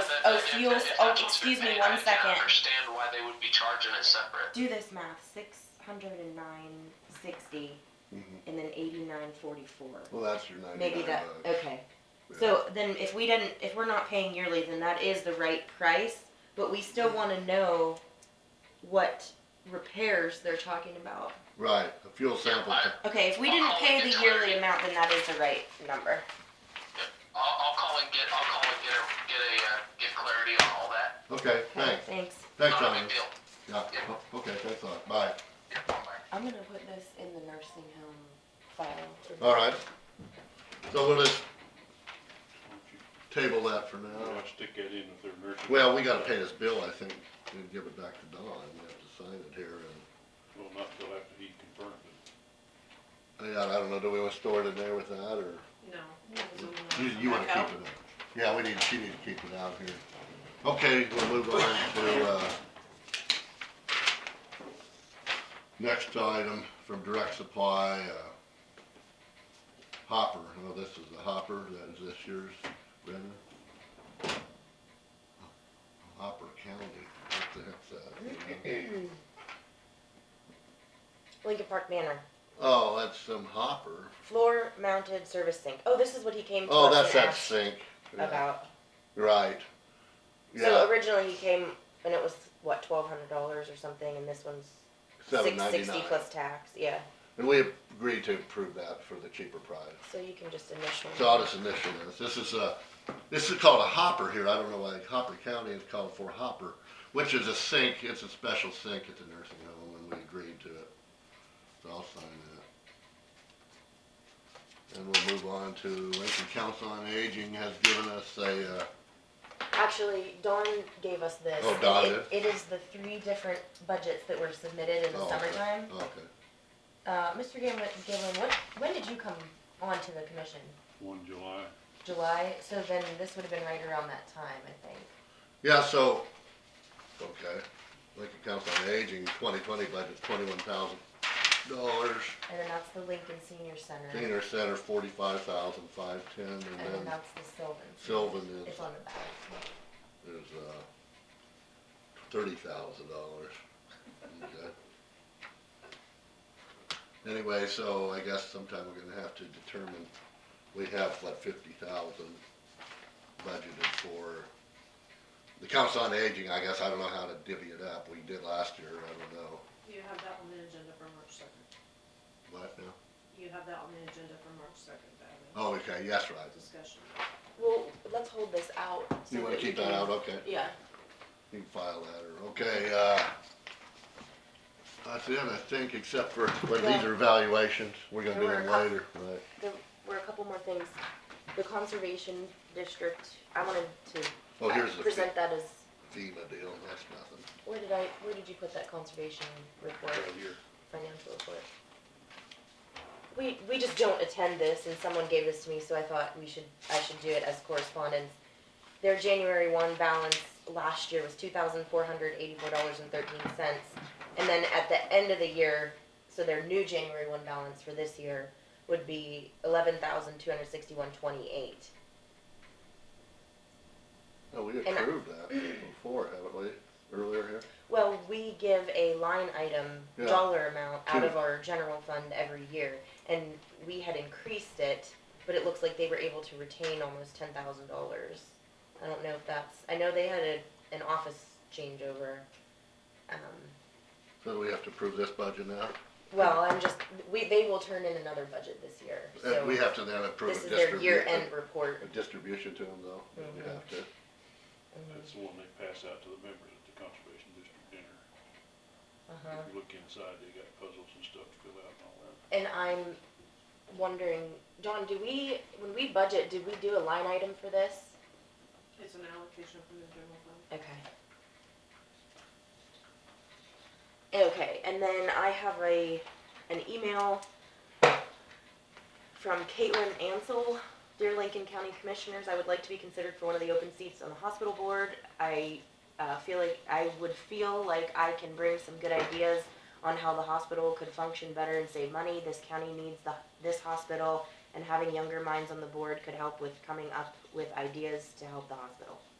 deals. Oh, excuse me, one I can second. understand why they would be charging it separate. Do this math. Six hundred and nine sixty, Mhm. and then eighty nine forty four. Well, that's your Maybe ninety-nine that. bucks. Okay. Yeah. So then, if we didn't, if we're not paying yearly, then that is the right price. But we still want to know what repairs they're talking about. Right, a fuel sample. I- t- Okay, if we didn't pay the yearly amount, then that is the right number. I'll, I'll call and get, I'll call and get a, get a, uh, get clarity on all that. Okay, Okay, thanks, thanks. thanks, Not a John. big deal. Yeah, Yeah. o- okay, thanks a lot, bye. Yeah, bye. I'm gonna put this in the nursing home file. All right. So we'll just table that for I now. stick that in with their nursing. Well, we gotta pay this bill, I think, and give it back to Don. We have to sign it here Well, not till after he confirms it. and, yeah, I don't know, do we want to store it in there with that or? No. You, you wanna keep it in? Yeah, we need, she needs to keep it out here. Okay, we'll move on to, uh, next item from Direct Supply, uh, Hopper. Well, this is the Hopper, that is this year's, Brenda? Hopper County, what the heck's that? you know? Lincoln Park Manor, Oh, that's some hopper. floor mounted service sink. Oh, this is what he came to Oh, us that's and that asked sink. Yeah, about. Right. So Yeah, originally he came and it was what twelve hundred dollars or something, and this one's seven six ninety-nine. sixty plus tax. Yeah, And we agreed to approve that for the cheaper price. so you can just initial. So I'll just initial this. This is a, this is called a hopper here. I don't know why Hopper County is called for hopper, which is a sink. It's a special sink at the nursing home and we agreed to it. So I'll sign that. And we'll move on to Lincoln Council on Aging has given us a, uh, Actually, Dawn gave us this. Oh, Dawn It- It is the three different budgets that were submitted in the Oh, okay. summertime. okay. Uh, Mr. Gilman, Gilman, what, when did you come onto the commission? One July, July, so then this would have been right around that time, I think. Yeah, so, okay, Lincoln Council on Aging, twenty twenty budget's twenty-one thousand dollars. And then that's the Lincoln Senior Center. Senior Center, forty-five thousand, five ten, And then and then that's the Sylvan. Sylvan is, It's on the back. is, uh, thirty thousand dollars. Okay. Anyway, so I guess sometime we're gonna have to determine, we have what, fifty thousand budgeted for the Council on Aging, I guess, I don't know how to divvy it up, we did last year, I don't know, You have that on the agenda for March second. what now? You have that on the agenda for March second, to have Oh, okay, yes, right, a discussion. Well, let's hold this out. so you wanna that we keep that can- out, okay. Yeah. You can file that, or, okay, uh, that's it, I think, except for, but these are evaluations, we're gonna do There were a them cou- later, right? There were a couple more things. The Conservation District, I wanted to Well, uh, Oh, here's the present Fe- that as, FEMA deal, that's nothing, where did I, where did you put that conservation report? right here. financial report. We, we just don't attend this, and someone gave this to me, so I thought we should, I should do it as correspondence. Their January one balance last year was two thousand four hundred eighty-four dollars and thirteen cents. And then at the end of the year, so their new January one balance for this year would be eleven thousand two hundred sixty-one twenty-eight. no, we I- approved that before, haven't we, earlier here? Well, we give a line item Yeah. dollar amount out To- of our general fund every year, and we had increased it, but it looks like they were able to retain almost ten thousand dollars. I don't know if that's, I know they had a, an office changeover. Um, So we have to approve this budget now, well, I'm just, we, they will turn in another budget this year, so. and Uh, we have to then approve This a is their distribution, year-end a report. distribution to them though, we Mhm. have to, That's the one they pass out to the members at the Conservation District dinner. Uh-huh. If you look inside, they got puzzles and stuff to fill out and all that. And I'm wondering, John, do we, when we budget, did we do a line item for this? It's an allocation from the general fund. Okay. Okay, and then I have a, an email from Caitlin Ansell. Dear Lincoln County Commissioners, I would like to be considered for one of the open seats on the hospital board. I, uh, feel like, I would feel like I can bring some good ideas on how the hospital could function better and save money. This county needs the, this hospital, and having younger minds on the board could help with coming up with ideas to help the hospital.